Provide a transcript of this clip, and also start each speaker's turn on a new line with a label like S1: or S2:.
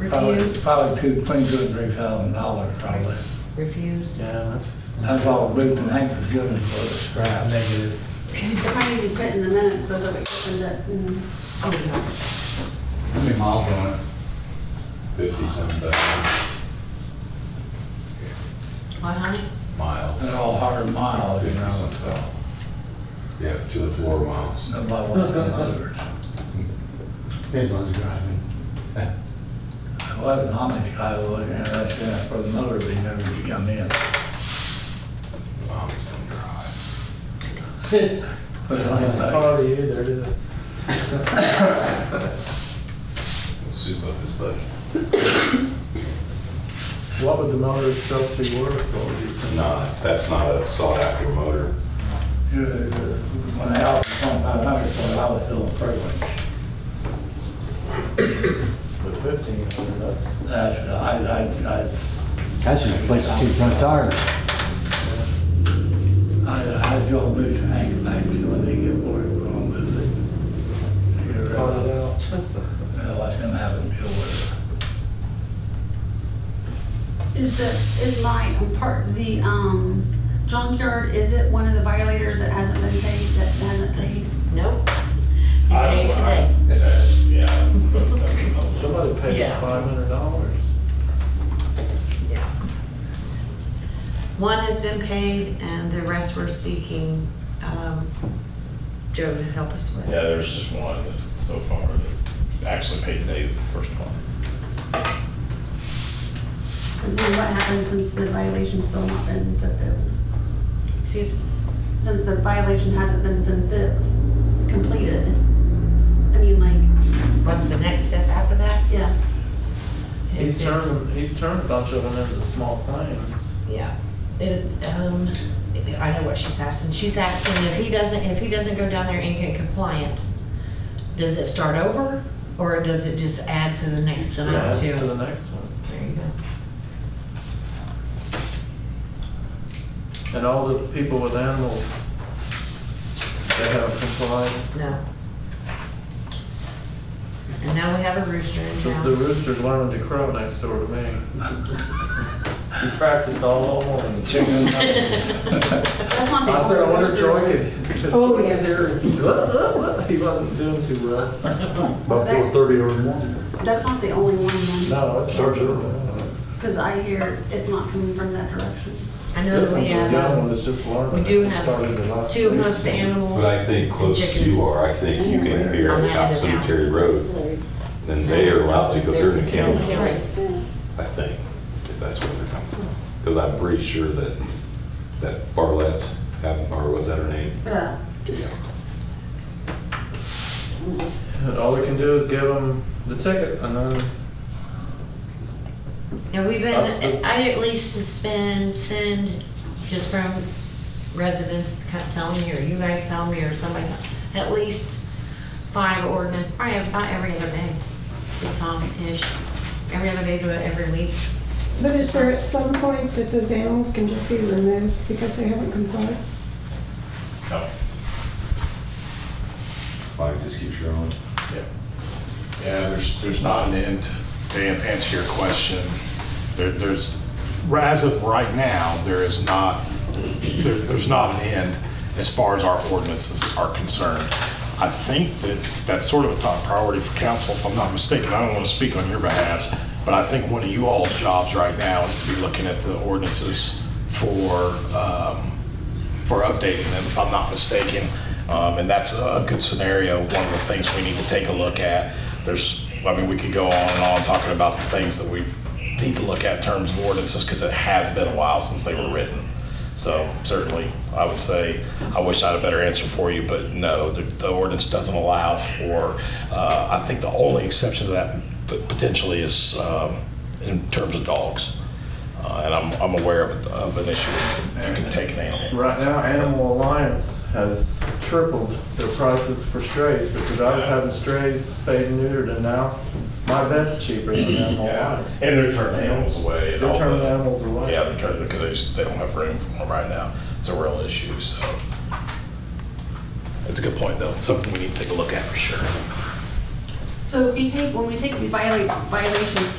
S1: Refuse,
S2: Probably two, between two and three thousand dollars probably.
S1: refuse.
S3: Yeah, that's,
S2: That's all Booth and Hank was giving for the
S3: that's
S2: scrap.
S3: negative.
S4: Why did you put in the minutes whether we opened it Mm. and,
S1: Oh,
S2: How many miles on it?
S5: fifty-seven thousand
S1: yeah. Why,
S6: Uh-huh.
S1: honey?
S5: miles.
S2: They're all hard miles, you know.
S5: Fifty-seven thousand. Yeah, to the floor miles.
S2: Nobody wants them others.
S3: Depends on who's driving.
S2: I wasn't Amish guy, I wasn't interested in for the motor, they never could come in.
S5: Mom's gonna drive.
S2: But it's only about-
S3: Probably either, is it?
S5: We'll Soup up his buddy.
S3: What would the motor itself be worth? What would it-
S5: It's not, that's not a sought-after motor.
S2: you know, when I was twenty-five hundred, so I was still privileged.
S3: But fifteen hundred, that's,
S2: That's, I, I, I
S7: That should replace the two front tires.
S2: I, I don't move to hang back to when they get bored, we're gonna move it. You're,
S3: part of
S2: uh,
S3: that.
S2: uh, What's gonna happen, deal with
S4: is the, is my, um, part, the, um, junkyard, is it one of the violators that hasn't been paid, that hasn't paid?
S6: Nope. You paid today.
S5: Yeah. that's another one.
S3: Somebody paid
S6: Yeah.
S3: five hundred dollars.
S6: One has been paid and the rest we're seeking um, Joe to help us with.
S8: Yeah, there's just one that so far that actually paid today is the first one.
S4: And then what happened since the violation's still not been fulfilled? Excuse me? Since the violation hasn't been fulfilled, completed? I mean, like,
S6: What's the next step after that?
S4: yeah,
S3: He's
S6: Is it-
S3: turned, he's turned a bunch of them into small claims.
S6: Yeah. It, um, I know what she's asking. She's asking if he doesn't, if he doesn't go down there and get compliant, does it start over? Or does it just add to the next
S3: Yeah,
S6: amount too?
S3: that's to the next one.
S6: There you go.
S3: And all the people with animals, they haven't complied.
S6: No. And now we have a rooster in
S3: Because the
S6: town.
S3: rooster's learning to crow next door to me. He practiced all morning.
S2: it. Chicken,
S4: that's one thing.
S3: I said, I wonder if Joy could, could
S6: Oh,
S3: Joy
S6: yeah.
S3: could hear her." He wasn't doing too well.
S9: About four thirty every morning,
S4: That's not the only one, then,
S3: No, it's
S9: starts early.
S4: because I hear it's not coming from that direction.
S6: I know
S3: This
S6: that we
S3: one's a
S6: have.
S3: young
S6: uh,
S3: one that's just learning.
S6: We do
S3: It just started the
S6: have
S3: last
S6: two
S3: week.
S6: hoofed animals.
S5: But I think close as you are, I think you can hear
S6: On
S5: it
S6: that
S5: out
S6: other
S5: Cemetery Road. Then they are allowed to, because they're in the county, I think, if that's where they're coming from. Because I'm pretty sure that, that Barlett's have, or was that her name?
S4: Yeah.
S5: Yeah.
S3: And All we can do is give them the ticket and then,
S6: And we've
S3: Uh,
S6: been, I at least suspend, send, just from residents co- tell me, or you guys tell me, or somebody tell, at least five ordinance, probably about every other day, to Tom-ish. Every other day to every week.
S10: But is there at some point that those animals can just be removed because they haven't complied?
S8: No,
S5: Mine just keeps growing.
S8: yeah. Yeah, there's, there's not an end to answer your question. There, there's, as of right now, there is not, there, there's not an end as far as our ordinances are concerned. I think that that's sort of a top priority for council, if I'm not mistaken. I don't want to speak on your behalf, but I think one of you all's jobs right now is to be looking at the ordinances for, um, for updating them, if I'm not mistaken. Um, And that's a good scenario, one of the things we need to take a look at. There's, I mean, we could go on and on talking about the things that we need to look at in terms of ordinances, because it has been a while since they were written. So certainly, I would say, I wish I had a better answer for you, but no, the the ordinance doesn't allow for, uh, I think the only exception to that pot- potentially is um, in terms of dogs. Uh, And I'm I'm aware of of an issue, where you can take an animal.
S3: right now Animal Alliance has tripled their prices for strays because I was having strays spayed and neutered and now my vet's cheaper than Animal
S8: Yeah,
S3: Alliance.
S8: and they're turning animals away.
S3: They're
S8: and all
S3: turning
S8: the-
S3: animals away.
S8: Yeah, they're turning, because they just, they don't have room for them right now. It's a real issue, so. It's a good point, though. Something we need to take a look at for sure.
S4: So if you take, when we take the viola- violations